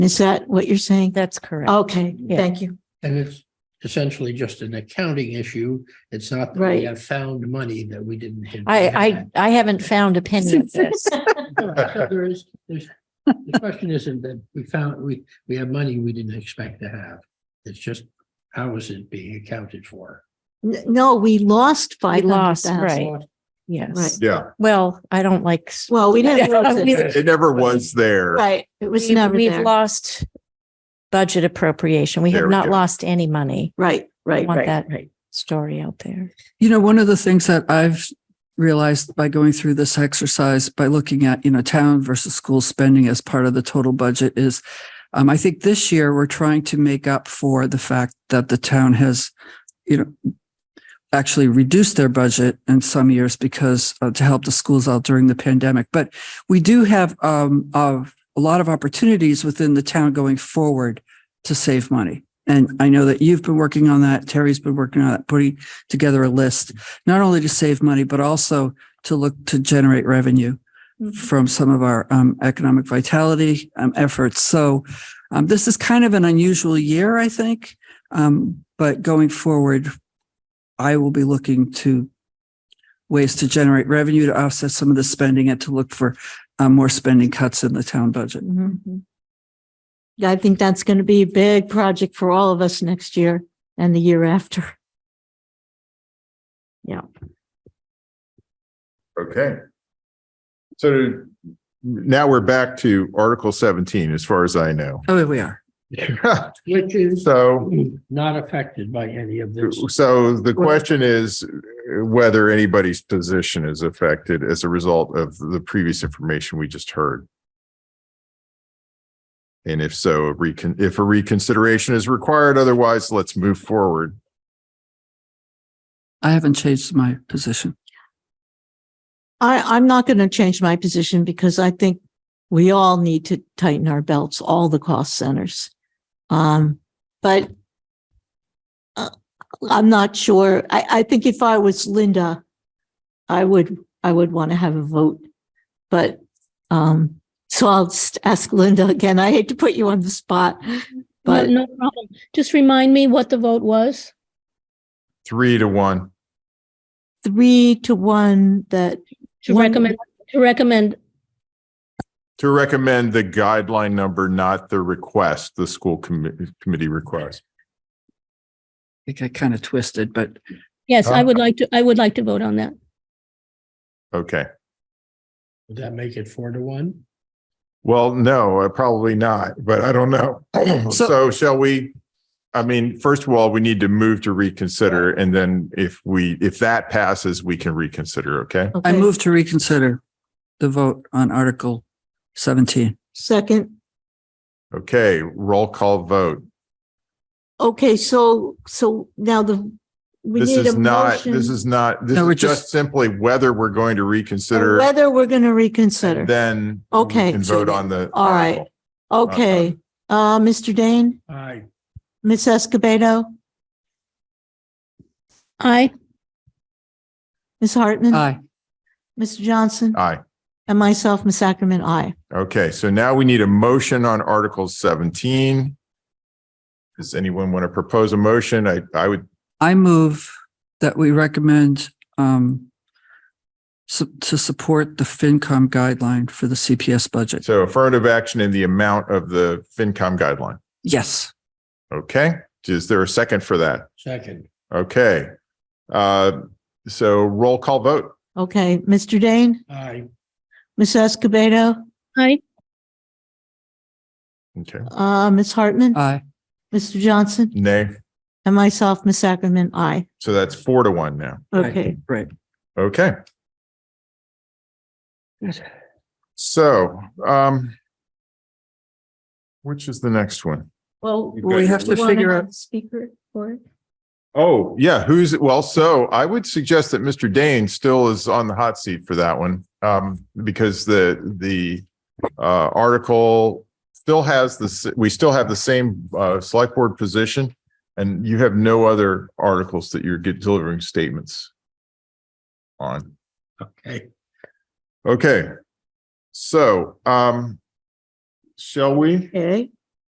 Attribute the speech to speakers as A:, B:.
A: Is that what you're saying?
B: That's correct.
A: Okay,
B: Yeah.
A: thank you.
C: And it's essentially just an accounting issue. It's not that
A: Right.
C: we have found money that we didn't. have-
B: I, I, I haven't found a penny of this.
C: So There is, there's, the question isn't that we found, we, we have money we didn't expect to have. It's just, how is it being accounted for?
A: N- No, we lost
B: We
A: five hundred
B: lost,
A: thousand.
B: right.
A: Right.
B: Yes.
D: Yeah,
B: Well, I don't like. s-
A: Well, we didn't lose
B: We-
A: it.
D: it never was there.
A: Right, it was
B: we-
A: never
B: We've
A: there.
B: lost budget appropriation. We
D: There
B: have
D: we
B: not
D: go.
B: lost any money.
A: Right,
B: I
A: right.
B: want that story out there.
E: You know, one of the things that I've realized by going through this exercise, by looking at, you know, town versus school spending as part of the total budget is, um, I think this year we're trying to make up for the fact that the town has, you know, actually reduced their budget in some years because uh, to help the schools out during the pandemic. But we do have, um, of a lot of opportunities within the town going forward to save money. And I know that you've been working on that. Terry's been working on that, putting together a list, not only to save money, but also to look to generate revenue from some of our um, economic vitality um, efforts. So um, this is kind of an unusual year, I think. Um, but going forward, I will be looking to ways to generate revenue to offset some of the spending and to look for uh, more spending cuts in the town budget.
A: Mhm. I think that's going to be a big project for all of us next year and the year after. Yeah,
D: Okay. So now we're back to Article seventeen, as far as I know.
E: Oh, here we are.
C: Which is
D: So,
C: not affected by any of this.
D: so the question is whether anybody's position is affected as a result of the previous information we just heard. And if so, a recon, if a reconsideration is required, otherwise, let's move forward.
E: I haven't changed my position.
A: I, I'm not going to change my position because I think we all need to tighten our belts, all the cost centers. Um, but uh, I'm not sure. I, I think if I was Linda, I would, I would want to have a vote. But, um, so I'll just ask Linda again. I hate to put you on the spot,
F: No,
A: but
F: no problem. Just remind me what the vote was.
D: Three to one.
A: three to one that,
F: To
A: One-
F: recommend, to recommend,
D: To recommend the guideline number, not the request, the school committee, committee request.
E: I think I kind of twisted, but
F: yes, I
E: Uh,
D: Huh?
F: would like to, I would like to vote on that.
D: Okay.
C: Would that make it four to one?
D: Well, no, uh, probably not, but I don't know. So shall we? I mean, first of all, we need to move to reconsider and then if we, if that passes, we can reconsider. Okay.
E: I
A: okay,
E: move to reconsider the vote on Article 17.
A: second.
D: Okay. Roll call vote.
A: Okay, so, so now the, we
D: This
A: need a
D: is not, this
A: motion.
D: is not, this
E: No, we're
D: is just
E: just-
D: simply whether we're going to reconsider.
A: Whether we're going to reconsider.
D: and Then. we
A: Okay.
D: Can vote on the.
A: All right.
D: article.
A: Okay, uh, Mr. Dane,
C: Aye.
A: Ms. Escobedo,
F: Aye,
A: Ms. Hartman.
E: Aye.
A: Mr. Johnson
D: Aye.
A: and myself, Ms. Ackerman, aye.
D: Okay, so now we need a motion on Article seventeen. Does anyone want to propose a motion? I, I would,
E: I move that we recommend um su- to support the FinCom guideline for the CPS budget.
D: so affirmative action in the amount of the FinCom guideline.
E: Yes.
D: Okay, is there a second for that?
C: Second.
D: Okay. Uh, so roll call vote.
A: Okay, Mr. Dane,
C: Aye.
A: Ms. Escobedo,
F: aye,
D: Okay,
A: uh, Ms. Hartman,
E: Aye.
A: Mr. Johnson
D: nay.
A: and myself, Ms. Ackerman, aye.
D: So that's four to one now.
E: Right.
A: Okay,
E: Right.
D: Okay. So, um, which is the next one?
A: well.
D: You've got We your
E: have to
A: wanna
E: figure
A: have
E: out-
A: a Speaker for it?
D: Oh, yeah, who's, well, so I would suggest that Mr. Dane still is on the hot seat for that one. Um, because the, the, uh, article still has this, we still have the same, uh, select board position. And you have no other articles that you're get- delivering statements on.
C: Okay.
D: Okay. So, um, shall we?
A: Okay,